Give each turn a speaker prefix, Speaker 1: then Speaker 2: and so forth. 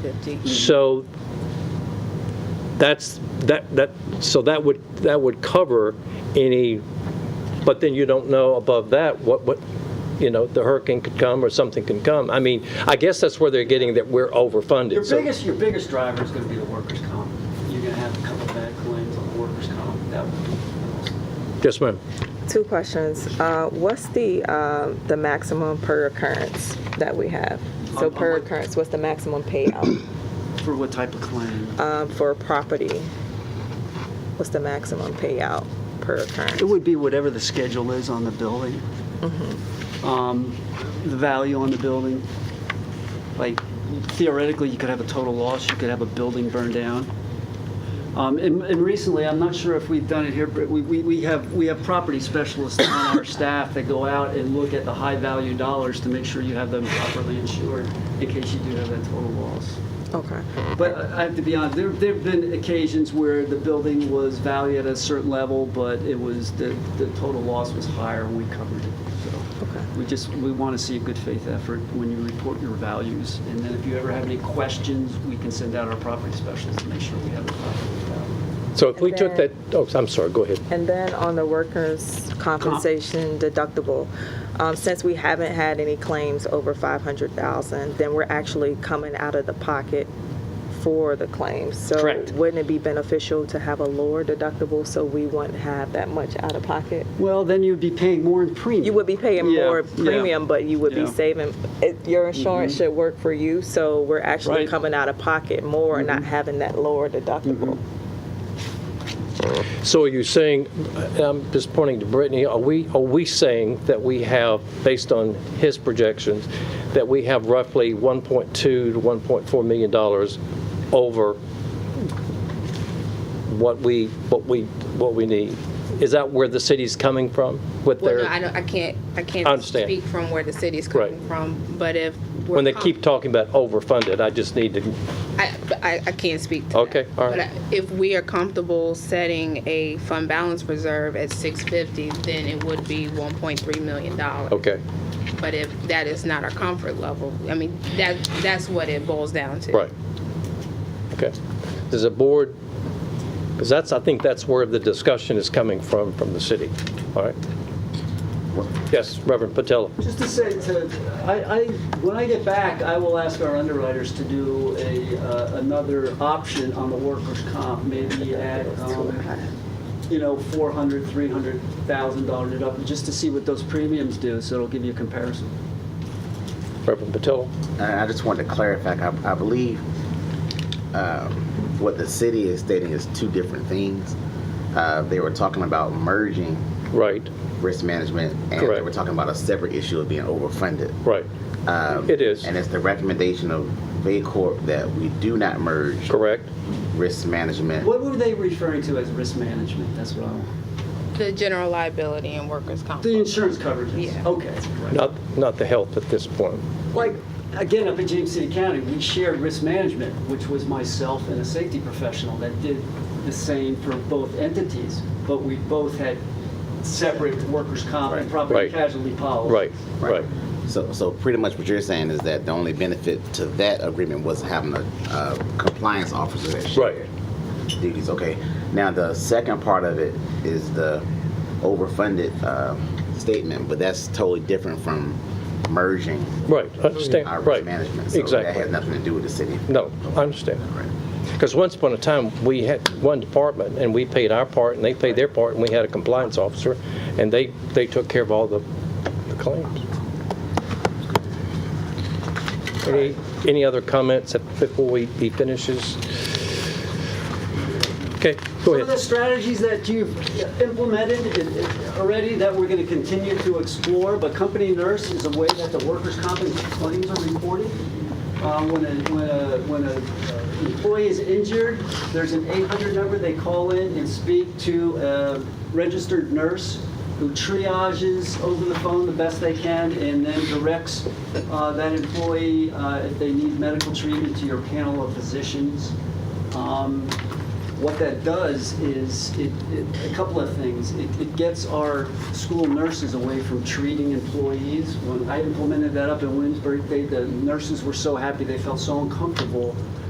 Speaker 1: 50.
Speaker 2: So that's, that, that, so that would, that would cover any, but then you don't know above that what, what, you know, the hurricane could come or something can come. I mean, I guess that's where they're getting that we're overfunded.
Speaker 3: Your
Speaker 2: So-
Speaker 3: biggest, your biggest driver is gonna be the workers' comp. You're gonna have a couple bad claims on the workers' comp. That would be the most.
Speaker 2: Yes, ma'am.
Speaker 1: Two questions. Uh, What's the, um, the maximum per occurrence that we have? So
Speaker 3: On- on
Speaker 1: per
Speaker 3: what?
Speaker 1: occurrence, what's the maximum payout
Speaker 3: For what type of claim?
Speaker 1: um, for property? What's the maximum payout per occurrence?
Speaker 3: It would be whatever the schedule is on the building. Um, The value on the building. Like theoretically, you could have a total loss, you could have a building burned down. Um, And and recently, I'm not sure if we've done it here, but we- we we have, we have property specialists on our staff that go out and look at the high-value dollars to make sure you have them properly insured in case you do have that total loss.
Speaker 1: Okay,
Speaker 3: But uh, I I have to be honest, there, there've been occasions where the building was valued at a certain level, but it was, the, the total loss was higher and we covered it. So
Speaker 1: okay.
Speaker 3: we just, we want to see a good faith effort when you report your values. And then if you ever have any questions, we can send out our property specialists to make sure we have it properly valued.
Speaker 2: So if we
Speaker 1: And
Speaker 2: took that,
Speaker 1: then-
Speaker 2: oh, I'm sorry, go ahead.
Speaker 1: And then on the workers' compensation deductible, um, since we haven't had any claims over 500,000, then we're actually coming out of the pocket for the claims.
Speaker 3: Correct.
Speaker 1: So wouldn't it be beneficial to have a lower deductible so we wouldn't have that much out of pocket?
Speaker 3: Well, then you'd be paying more in premium.
Speaker 1: You would be paying
Speaker 3: Yeah,
Speaker 1: more
Speaker 3: yeah.
Speaker 1: premium, but you would be
Speaker 3: Yeah. Mm-hmm.
Speaker 1: saving, it- your insurance should work for you, so we're actually
Speaker 3: Right. Mm-hmm.
Speaker 1: coming out of pocket more and not having that lower deductible.
Speaker 2: So are you saying, I'm just pointing to Brittany, are we, are we saying that we have, based on his projections, that we have roughly 1.2 to 1.4 million dollars over what we, what we, what we need? Is that where the city's coming from with
Speaker 4: Well, no,
Speaker 2: their,
Speaker 4: I don't, I can't, I
Speaker 2: I
Speaker 4: can't
Speaker 2: understand.
Speaker 4: speak from where the city's
Speaker 2: Right.
Speaker 4: coming from, but if. we're
Speaker 2: when they
Speaker 4: com-
Speaker 2: keep talking about overfunded, I just need to,
Speaker 4: I, I, I can't speak to that.
Speaker 2: Okay, all right.
Speaker 4: But I- if we are comfortable setting a fund balance reserve at six fifty, then it would be one point three million dollars.
Speaker 2: okay,
Speaker 4: But if that is not our comfort level, I mean, that, that's what it boils down to.
Speaker 2: right. Okay. Does the board, because that's, I think that's where the discussion is coming from, from the city, all right? Yes, Reverend Patella.
Speaker 3: Just to say, to, I, I, when I get back, I will ask our underwriters to do a, uh, another option on the workers' comp, maybe at, um, you know, four hundred, three hundred thousand dollar deductible, just to see what those premiums do, so it'll give you a comparison.
Speaker 2: Reverend Patillo?
Speaker 5: I I just wanted to clarify, I, I believe um, what the city is stating is two different things. Uh, They were talking about merging
Speaker 2: Right,
Speaker 5: risk management, and they
Speaker 2: Correct.
Speaker 5: were talking about a separate issue of being overfunded.
Speaker 2: right,
Speaker 5: Um,
Speaker 2: It is.
Speaker 5: And it's the recommendation of VACORP that we do not merge
Speaker 2: correct.
Speaker 5: risk management.
Speaker 3: What were they referring to as risk management? That's what I want.
Speaker 4: The general liability and workers' comp.
Speaker 3: The insurance coverages?
Speaker 4: Yeah.
Speaker 3: Okay. right.
Speaker 2: Not, not the health at this point.
Speaker 3: Like, again, up in James City County, we shared risk management, which was myself and a safety professional that did the same for both entities, but we both had separate workers' comp and
Speaker 5: Right.
Speaker 3: property
Speaker 2: Right.
Speaker 3: casualty policies.
Speaker 2: Right, right.
Speaker 5: So, so pretty much what you're saying is that the only benefit to that agreement was having a uh, compliance officer that shared duties. Okay. Now the second part of it is the overfunded uh, statement, but that's totally different from merging
Speaker 2: Right, I understand,
Speaker 5: our
Speaker 2: right.
Speaker 5: risk management. So that has
Speaker 2: Exactly.
Speaker 5: nothing to do with the city.
Speaker 2: No, I understand.
Speaker 5: Right.
Speaker 2: Because once upon a time, we had one department, and we paid our part, and they paid their part, and we had a compliance officer, and they, they took care of all the the claims. Any, any other comments before we, he finishes? Okay, go
Speaker 3: Some of the
Speaker 2: ahead.
Speaker 3: strategies that you've implemented in- in- already that we're going to continue to explore, but company nurse is a way that the workers' comp claims are reported. Um, When a, when a, when a uh, employee is injured, there's an 800 number they call in and speak to a registered nurse who triages over the phone the best they can and then directs uh, that employee, uh, if they need medical treatment, to your panel of physicians. Um, What that does is, it, it, a couple of things. It, it gets our school nurses away from treating employees. When I implemented that up in Williamsburg, they, the nurses were so happy, they felt so uncomfortable